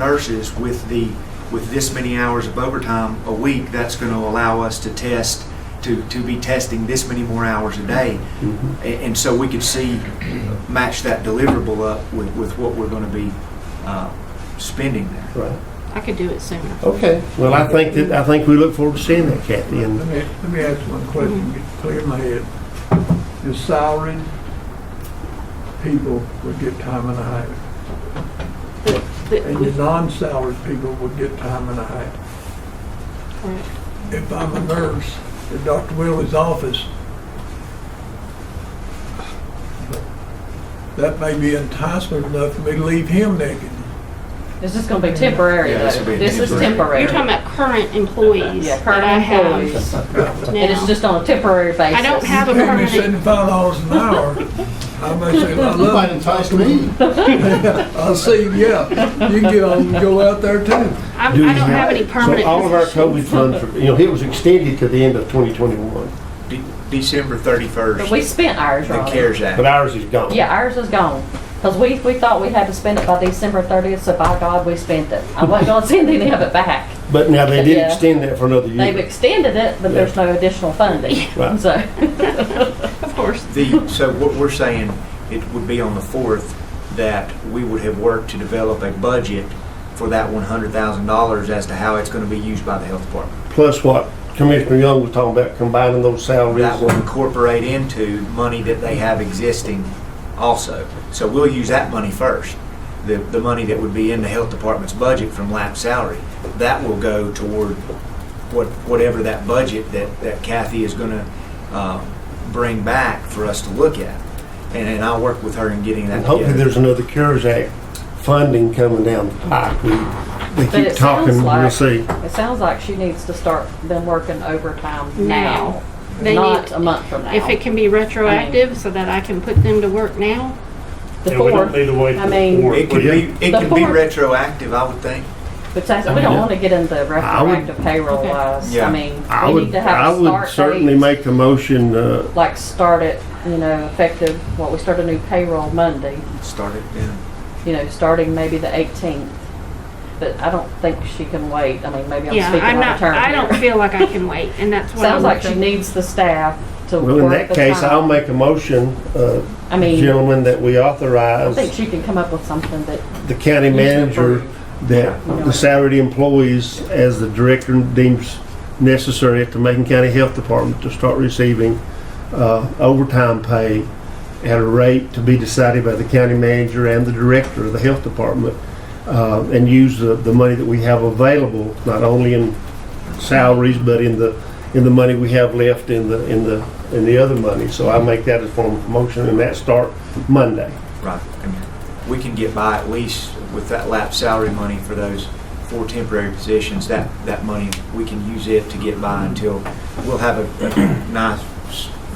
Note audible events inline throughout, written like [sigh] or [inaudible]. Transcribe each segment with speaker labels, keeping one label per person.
Speaker 1: nurses with the, with this many hours of overtime a week, that's going to allow us to test, to, to be testing this many more hours a day.
Speaker 2: Mm-hmm.
Speaker 1: A- And so we could see, match that deliverable up with, with what we're going to be uh, spending there.
Speaker 2: Right.
Speaker 3: I could do it sooner.
Speaker 2: Okay. Well, I think that, I think we look forward to seeing that, Kathy,
Speaker 4: Let
Speaker 2: and
Speaker 4: me, let me ask one question, get clear in my head. Is salaried people would get time and a half,
Speaker 3: But- but-
Speaker 4: and your non-salaried people would get time and a half.
Speaker 3: correct.
Speaker 4: If I'm a nurse at Dr. Willie's office, that may be enticement enough for me to leave him naked.
Speaker 5: This is gonna be temporary
Speaker 1: Yeah,
Speaker 5: though.
Speaker 1: this will be
Speaker 5: This is
Speaker 1: temporary.
Speaker 5: temporary.
Speaker 3: You're talking about current employees
Speaker 5: Yeah,
Speaker 3: that
Speaker 5: current
Speaker 3: I have
Speaker 5: employees. And it's
Speaker 3: now.
Speaker 5: just on a temporary basis.
Speaker 3: I don't have a
Speaker 4: You pay me
Speaker 3: permanent,
Speaker 4: seventy-five dollars an hour, I may say, I
Speaker 6: You might
Speaker 4: love
Speaker 6: entice me.
Speaker 4: it. I see, yeah, you can get on and go out there too.
Speaker 3: I'm- I
Speaker 2: do
Speaker 3: don't have any permanent.
Speaker 2: So all of our COVID
Speaker 3: positions.
Speaker 2: funds, are- you know, it was extended to the end of 2021,
Speaker 1: De- December
Speaker 5: But
Speaker 1: 31st,
Speaker 5: we spent ours,
Speaker 1: the
Speaker 5: Ronnie.
Speaker 1: CARES
Speaker 2: but
Speaker 1: Act.
Speaker 2: ours is gone.
Speaker 5: Yeah, ours is gone. Cause we, we thought we had to spend it by December thirtieth, so by God, we spent it. I wasn't gonna [laughs] send any of it back.
Speaker 2: But now they did
Speaker 5: Yeah.
Speaker 2: extend that for another
Speaker 5: They've
Speaker 2: year.
Speaker 5: extended it, but there's no additional funding.
Speaker 2: Right.
Speaker 5: [laughs] So,
Speaker 3: Of course.
Speaker 1: The, so what we're saying, it would be on the 4th that we would have worked to develop a budget for that $100,000 as to how it's going to be used by the health department.
Speaker 2: Plus what Commissioner Young was talking about, combining those salaries.
Speaker 1: That will incorporate into money that they have existing also. So we'll use that money first. The, the money that would be in the health department's budget from lap salary, that will go toward what, whatever that budget that, that Kathy is gonna, uh, bring back for us to look at. And, and I'll work with her in getting that
Speaker 2: And hopefully
Speaker 1: together.
Speaker 2: there's another CARES Act funding coming down the pipe. We, we
Speaker 5: But
Speaker 2: keep
Speaker 5: it
Speaker 2: talking,
Speaker 5: sounds
Speaker 2: we'll
Speaker 5: like-
Speaker 2: see.
Speaker 5: it sounds like she needs to start them working
Speaker 3: Now.
Speaker 5: overtime now,
Speaker 3: They
Speaker 5: not
Speaker 3: need-
Speaker 5: a month from now.
Speaker 3: If it can be retroactive so that I can put them to work now,
Speaker 5: The
Speaker 7: And we don't
Speaker 5: fourth,
Speaker 7: need to wait.
Speaker 5: I
Speaker 7: for the
Speaker 5: mean-
Speaker 7: fourth,
Speaker 1: It
Speaker 7: would
Speaker 1: could
Speaker 7: you?
Speaker 1: be, it could be
Speaker 5: Before-
Speaker 1: retroactive, I would think.
Speaker 5: which I, we don't wanna get into
Speaker 2: would-
Speaker 5: retroactive payroll
Speaker 3: Okay.
Speaker 5: wise.
Speaker 1: Yeah.
Speaker 5: I mean,
Speaker 2: I
Speaker 5: we need
Speaker 2: would,
Speaker 5: to have
Speaker 2: I
Speaker 5: a start date.
Speaker 2: would certainly make the motion, uh,
Speaker 5: like start it, you know, effective, well, we start a new payroll Monday,
Speaker 1: Start it then.
Speaker 5: you know, starting maybe the 18th. But I don't think she can wait. I mean, maybe I'm
Speaker 3: yeah,
Speaker 5: speaking
Speaker 3: I'm
Speaker 5: out of
Speaker 3: not,
Speaker 5: turn.
Speaker 3: I
Speaker 5: [laughs]
Speaker 3: don't
Speaker 5: here.
Speaker 3: feel like I can wait, and
Speaker 5: [laughs]
Speaker 3: that's what I'm
Speaker 5: Sounds like she
Speaker 3: looking.
Speaker 5: needs the staff to
Speaker 2: well, in
Speaker 5: work
Speaker 2: that
Speaker 5: the
Speaker 2: case, I'll
Speaker 5: time.
Speaker 2: make a motion, uh,
Speaker 5: I mean,
Speaker 2: gentlemen, that we
Speaker 5: I
Speaker 2: authorize
Speaker 5: think she can come up with something that,
Speaker 2: the county manager that the salaried employees, as the director deems necessary at the Macon County Health Department, to start receiving uh, overtime pay at a rate to be decided by the county manager and the director of the health department, uh, and use the, the money that we have available, not only in salaries, but in the, in the money we have left in the, in the, in the other money. So I make that as form of motion, and that start Monday.
Speaker 1: Right. And We can get by at least with that lap salary money for those four temporary positions, that, that money, we can use it to get by until, we'll have a a nice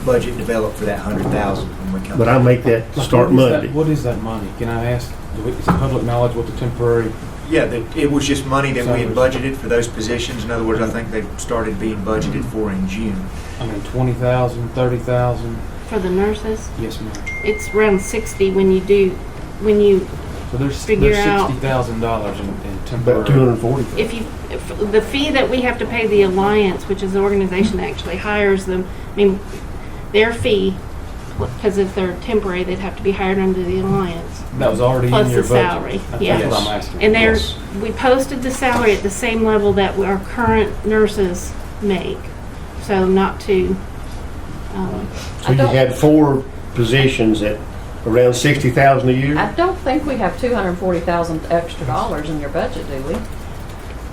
Speaker 1: budget developed for that hundred thousand when we come.
Speaker 2: But I make that start
Speaker 8: What is that-
Speaker 2: Monday.
Speaker 8: What is that money? Can I ask, do we- is it public knowledge what the temporary,
Speaker 1: Yeah, that- it was just money that we had budgeted for those positions. In other words, I think they started being budgeted for in June.
Speaker 8: I mean, 20,000, 30,000?
Speaker 3: For the nurses,
Speaker 8: Yes, ma'am.
Speaker 3: it's around sixty when you do, when you,
Speaker 8: So there's,
Speaker 3: Figure
Speaker 8: there's
Speaker 3: out-
Speaker 8: $60,000 in- in
Speaker 2: About two hundred
Speaker 8: temporary.
Speaker 2: and forty.
Speaker 3: if you, if the fee that we have to pay the Alliance, which is the organization that actually hires them, I mean, their fee, because if they're temporary, they'd have to be hired under the Alliance.
Speaker 8: That was already
Speaker 3: Plus
Speaker 8: in your
Speaker 3: the salary,
Speaker 8: budget.
Speaker 3: yeah.
Speaker 8: That's what I'm asking.
Speaker 3: And they're,
Speaker 1: Yes.
Speaker 3: we posted the salary at the same level that our current nurses make, so not to, um,
Speaker 2: So you had four positions at around sixty thousand a year?
Speaker 5: I don't think we have 240,000 extra dollars in your budget, do we?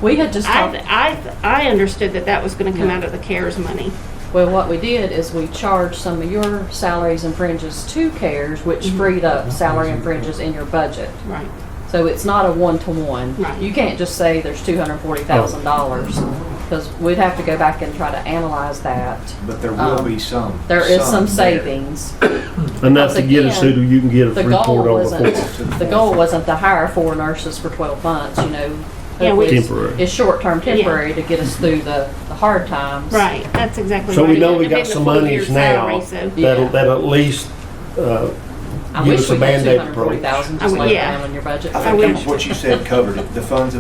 Speaker 5: We had just talked.
Speaker 3: I, I, I understood that that was gonna come out of the CARES money.
Speaker 5: Well, what we did is we charged some of your salaries and fringes to CARES, which
Speaker 3: Mm-hmm.
Speaker 5: freed up salary and fringes in your budget.
Speaker 3: Right.
Speaker 5: So it's not a one-to-one.
Speaker 3: Right.
Speaker 5: You can't just say there's two hundred and forty thousand dollars,
Speaker 3: Oh.
Speaker 5: because we'd have to go back and try to analyze that.
Speaker 1: But there will
Speaker 5: Um,
Speaker 1: be some.
Speaker 5: There is some
Speaker 1: there.
Speaker 5: savings.
Speaker 2: Enough to get us
Speaker 5: Once again,
Speaker 2: to, you can get a
Speaker 5: The
Speaker 2: report
Speaker 5: goal
Speaker 2: on
Speaker 5: wasn't,
Speaker 2: before.
Speaker 5: the goal wasn't to hire four nurses for twelve months, you know.
Speaker 3: Yeah, we-
Speaker 5: Hopefully it's-
Speaker 2: Temporary.
Speaker 5: It's short-term temporary to get us through the, the hard times.
Speaker 3: Right, that's exactly
Speaker 2: So
Speaker 3: right.
Speaker 2: we know
Speaker 3: It
Speaker 2: we got
Speaker 3: depends
Speaker 2: some
Speaker 3: upon your
Speaker 2: monies
Speaker 3: salary,
Speaker 2: now,
Speaker 3: so-
Speaker 2: that'll,
Speaker 5: Yeah.
Speaker 2: that'll at least, uh,
Speaker 5: I
Speaker 2: Give
Speaker 5: wish
Speaker 2: us a
Speaker 5: we had two
Speaker 2: Band-Aid
Speaker 5: hundred forty thousand,
Speaker 3: I
Speaker 5: just
Speaker 3: would-
Speaker 5: lay it
Speaker 3: yeah.
Speaker 5: down in your budget.
Speaker 1: I
Speaker 3: I
Speaker 1: think
Speaker 3: would-
Speaker 1: what you said covered it. The funds